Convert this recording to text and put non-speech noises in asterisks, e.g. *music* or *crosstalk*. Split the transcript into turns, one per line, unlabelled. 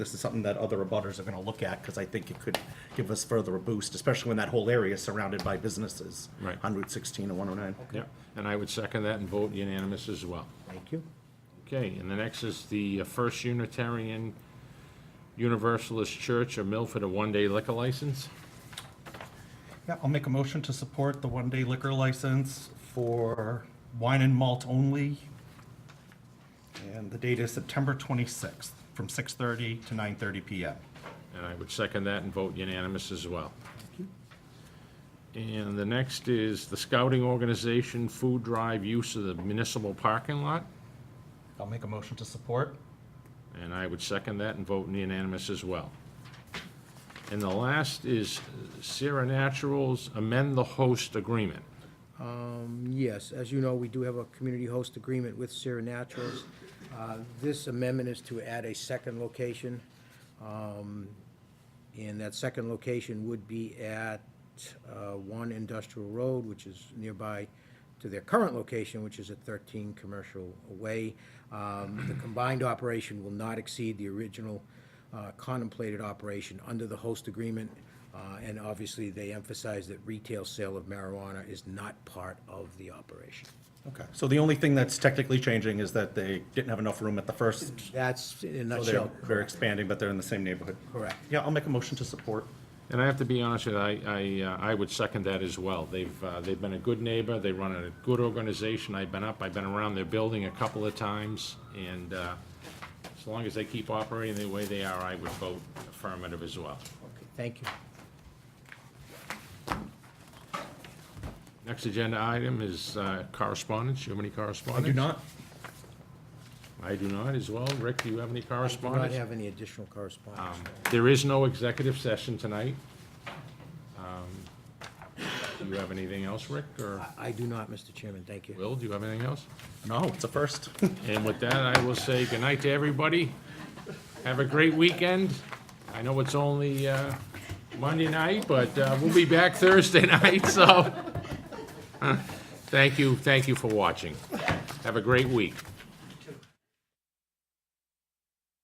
this is something that other abutters are gonna look at, because I think it could give us further a boost, especially when that whole area is surrounded by businesses.
Right.
On Route sixteen and one oh nine.
Yeah, and I would second that and vote unanimous as well.
Thank you.
Okay, and the next is the uh, First Unitarian Universalist Church of Milford, a one-day liquor license.
Yeah, I'll make a motion to support the one-day liquor license for wine and malt only. And the date is September 26th, from 6:30 to 9:30 PM.
And I would second that and vote unanimous as well. And the next is the Scouting Organization Food Drive Use of the Municipal Parking Lot.
I'll make a motion to support.
And I would second that and vote unanimous as well. And the last is Sierra Naturals Amend the Host Agreement.
Yes, as you know, we do have a community host agreement with Sierra Naturals. Uh, This amendment is to add a second location, um, and that second location would be at uh, One Industrial Road, which is nearby to their current location, which is at 13 Commercial Way. Um, The combined operation will not exceed the original uh, contemplated operation under the host agreement, uh, and obviously, they emphasize that retail sale of marijuana is not part of the operation.
Okay, so the only thing that's technically changing is that they didn't have enough room at the first,
That's in a
so they're,
nutshell.
they're expanding, but they're in the same neighborhood.
Correct.
Yeah, I'll make a motion to support.
And I have to be honest with you, I, I, uh, I would second that as well. They've, uh, they've been a good neighbor, they run a good organization. I've been up, I've been around their building a couple of times, and uh, as long as they keep operating the way they are, I would vote affirmative as well.
Okay, Thank you.
Next agenda item is uh, correspondence. You have any correspondence? I do not as well. Rick, do you have any
I do not
correspondence?
have any additional correspondence.
There is no executive session tonight. Um, Do you have anything else, Rick, or
I- I do not, Mr. Chairman, thank you.
Will, do you have anything else?
No, it's a first.
And with that, I will say goodnight to everybody. Have a great weekend. I know it's only uh, Monday night, but uh, we'll be back Thursday *laughs* night, so. Thank you, thank you for watching. Have a great week.